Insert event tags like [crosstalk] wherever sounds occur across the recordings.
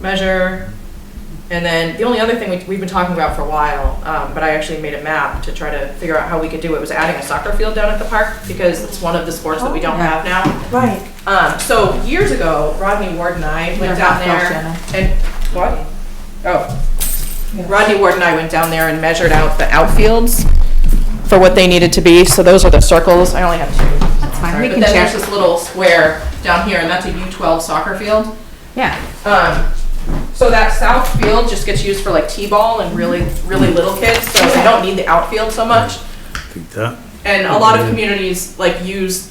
measure. And then the only other thing we- we've been talking about for a while, um, but I actually made a map to try to figure out how we could do it, was adding a soccer field down at the park because it's one of the sports that we Oh, don't have now. Right. Um, so years ago, Rodney Ward and I You're went down half off, there and, what? Oh. Rodney Ward and I went down there and measured out the outfields for what they needed to be. So those are the circles. I only have two. That's fine. But We then can there's check. this little square down here and that's a U12 soccer field. Yeah. Um, so that south field just gets used for like T-ball and really, really little kids, so they don't need the outfield so much. Think that? And a lot of communities like use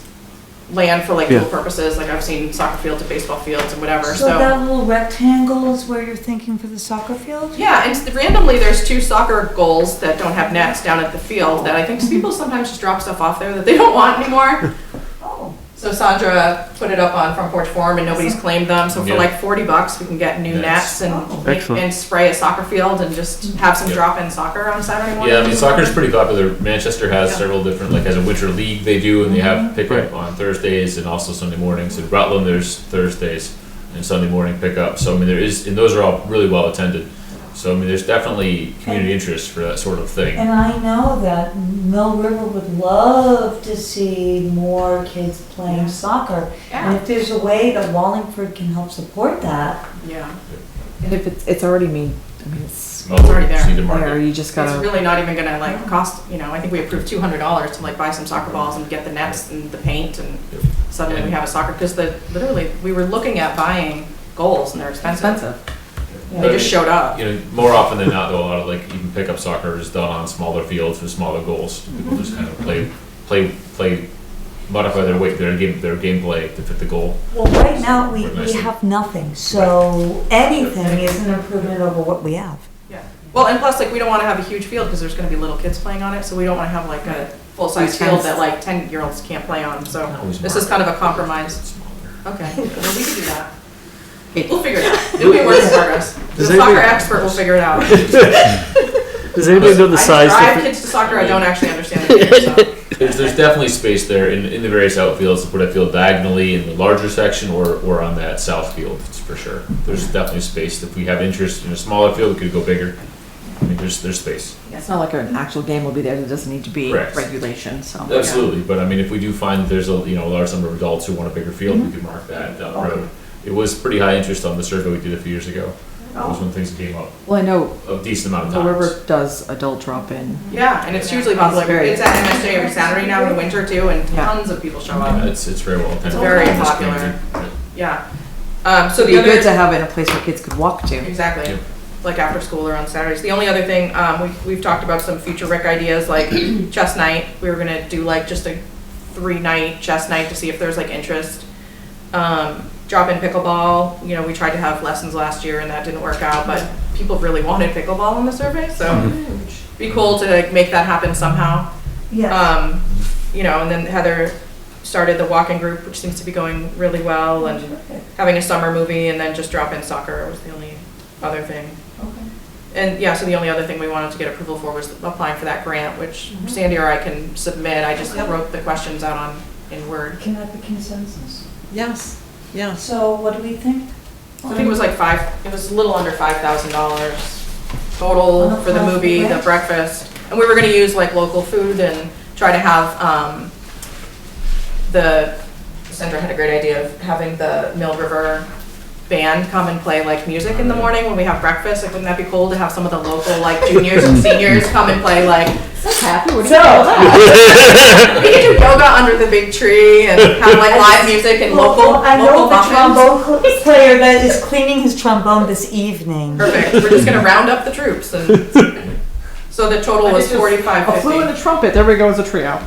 land for like Yeah. cool purposes, like I've seen soccer fields and baseball fields and whatever, So that so. little rectangle is where you're thinking for the soccer field? Yeah, and s- randomly, there's two soccer goals that don't have nets down at the field that I think people sometimes just drop stuff off there that they don't want anymore. Oh, So Sandra put it up on Front Porch Forum and nobody's claimed them, so for Yeah. like forty bucks, we can get new Nice. nets and, Oh. make- Excellent. and spray a soccer field and just have some Yep. drop-in soccer on Saturday morning. Yeah, I mean soccer's pretty popular. Manchester has Yeah. Mm-hmm. several different like has a winter league they do, and they have pickup Right. on Thursdays and also Sunday mornings. In Rutland, there's Thursdays and Sunday morning pickup. So I mean there is, and those are all really well attended. So I mean there's definitely community interest for that sort of thing. and I know that Mill River would love to see more kids playing soccer. And if there's a way that Wallingford can help support that, Yeah, And if it's, it's already made, I mean, it's Well, already we just there. need to market. there, you just it's gotta. really not even gonna like cost, you know, I think we approved two hundred dollars to like buy some soccer balls and get the nets and the paint and Yep. suddenly we have a soccer, because the, literally, we were looking at buying goals and they're expensive. They just showed up. You know, more often than not, though, a lot of like even pickup soccer is done on smaller fields with smaller goals. People just kind of Mm-hmm. play, play, play, modify their weight, their game, their gameplay to fit the goal. well, right now, we, we Nice. have nothing, so anything is an improvement over what we have. Yeah. Well, and plus, like, we don't wanna have a huge field, because there's gonna be little kids playing on it, so we don't wanna have like a full-size Huge field fence. that like ten-year-olds can't play on, so Always this is market. kind of a compromise. Smaller. Okay, [laughs] well, we can do that. Hey. We'll figure it out. It'll be a work in progress. The Does soccer anybody- expert will figure it [laughs] out. Does anybody know the I size? drive difference? kids to soccer, I don't actually understand [laughs] the game, so. There's, there's definitely space there in, in the various outfields to put a field diagonally in the larger section or, or on that south field, it's for sure. There's definitely space. If we have interest in a smaller field, we could go bigger. I mean, there's, there's space. It's not like an actual game will be there, there doesn't need to be Correct. regulation, so. Absolutely, but I mean, if we do find that there's a, you know, a large number of adults who want a bigger field, we could mark that down the road. It was pretty high interest on the survey we did a few years ago. That was when things came up Well, I know a decent amount the of times. river does adult drop-in. Yeah, and it's hugely popular. very- It's at MSJ every Saturday now in the winter too, and Yeah. tons of people show Yeah, up. It's, it's very well attended. very It's popular. painted. Yeah. Um, so It'd be the good to other, have it in a place where kids could walk to. exactly, Yep. like after school or on Saturdays. The only other thing, um, we, we've talked about some future rec ideas like chess night. We were gonna do like just a three night chess night to see if there's like interest. Um, drop in pickleball, you know, we tried to have lessons last year and that didn't work out, but people really wanted pickleball in the survey, so. Be cool to like make that happen somehow. Yeah. Um, you know, and then Heather started the walking group, which seems to be going really well, and having a summer movie, and then just drop in soccer was the only other thing. And yeah, so the only other thing we wanted to get approval for was applying for that grant, which Sandy or I can submit. I just Yep. wrote the questions out on, in Word. Can that be consensus? Yes, yes. So what do we think? I think it was like five, it was a little under five thousand dollars total for the movie, the breakfast. And we were gonna use like local food and try to have, um, the, Sandra had a great idea of having the Mill River band come and play like music in the morning when we have breakfast. Like, wouldn't that be cool to have some of the local like juniors and seniors come and play like, Happy, what do you think about so, that? we could do yoga under the big tree and have [laughs] like live music and local, Well, Oh, I know local the muffins. trombone cl- player that is cleaning his trombone this evening. Perfect. We're just gonna round up the troops and, so the total was forty-five A flute and fifty. a trumpet, there we go, it's a trio.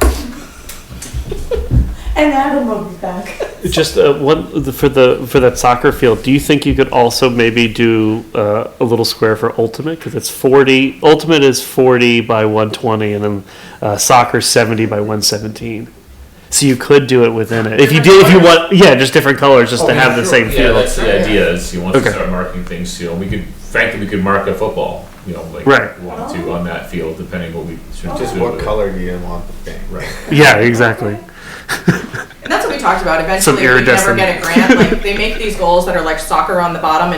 And Adam will be back. Just uh, one for the for that soccer field. Do you think you could also maybe do uh, a little square for ultimate because it's forty. Ultimate is forty by one twenty, and then uh, soccer seventy by one seventeen. So you could do it within it if you did. If you want, yeah, just different colors, just to have the same Yeah, feel. that's the idea, is you want to Okay. start marking things, you know, we could, frankly, we could mark a football, you know, like. Right. we Wanted to on that field, depending what we should. Just do what with it. color do you want the thing? Right. Yeah, exactly. And that's what we talked about. Eventually, we never iridescent. get a grant. Like, they make these goals that are like soccer on the bottom and